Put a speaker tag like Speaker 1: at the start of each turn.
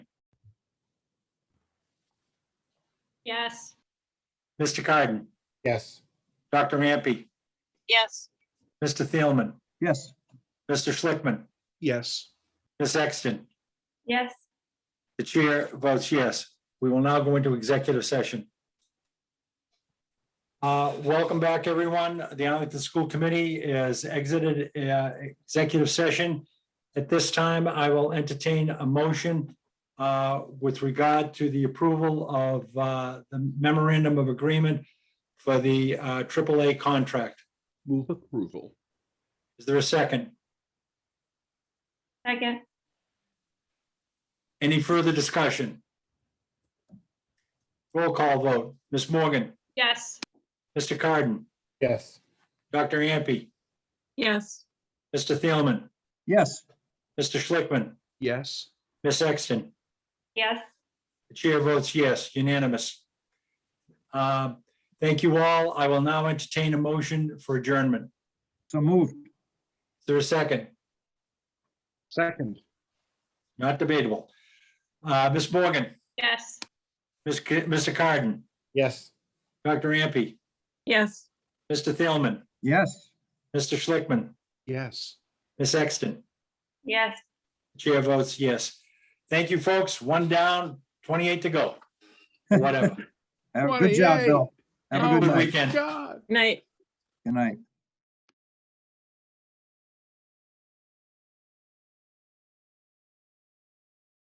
Speaker 1: Yes.
Speaker 2: Mr. Carden,
Speaker 3: Yes.
Speaker 2: Dr. Rampe,
Speaker 1: Yes.
Speaker 2: Mr. Thielman,
Speaker 3: Yes.
Speaker 2: Mr. Schlickman,
Speaker 3: Yes.
Speaker 2: Ms. Exton.
Speaker 1: Yes.
Speaker 2: The chair votes yes. We will now go into executive session. Uh, Welcome back, everyone. The Arlington School Committee has exited uh, executive session. At this time, I will entertain a motion uh, with regard to the approval of uh, the memorandum of agreement for the uh, AAA contract.
Speaker 4: Move approval.
Speaker 2: Is there a second?
Speaker 1: Second.
Speaker 2: Any further discussion? Roll call vote. Ms. Morgan,
Speaker 1: Yes.
Speaker 2: Mr. Carden,
Speaker 3: Yes.
Speaker 2: Dr. Ampe,
Speaker 1: Yes.
Speaker 2: Mr. Thielman,
Speaker 3: Yes.
Speaker 2: Mr. Schlickman,
Speaker 4: Yes.
Speaker 2: Ms. Exton.
Speaker 1: Yes.
Speaker 2: The chair votes yes, unanimous. Um, Thank you all. I will now entertain a motion for adjournment. Is
Speaker 3: So moved.
Speaker 2: there a second?
Speaker 4: Second.
Speaker 2: Not debatable. Uh, Ms. Morgan,
Speaker 1: Yes.
Speaker 2: Ms. Ca- Mr. Carden,
Speaker 3: Yes.
Speaker 2: Dr. Ampe,
Speaker 1: Yes.
Speaker 2: Mr. Thielman,
Speaker 3: Yes.
Speaker 2: Mr. Schlickman,
Speaker 4: Yes.
Speaker 2: Ms. Exton.
Speaker 1: Yes.
Speaker 2: Chair votes yes. Thank you, folks. One down, 28 to go. Whatever.
Speaker 3: Have- Good job,
Speaker 4: 28.
Speaker 3: Bill. Have a
Speaker 4: Oh
Speaker 3: good
Speaker 2: Good
Speaker 4: my
Speaker 3: night.
Speaker 2: weekend.
Speaker 4: God.
Speaker 1: Night.
Speaker 3: Good night.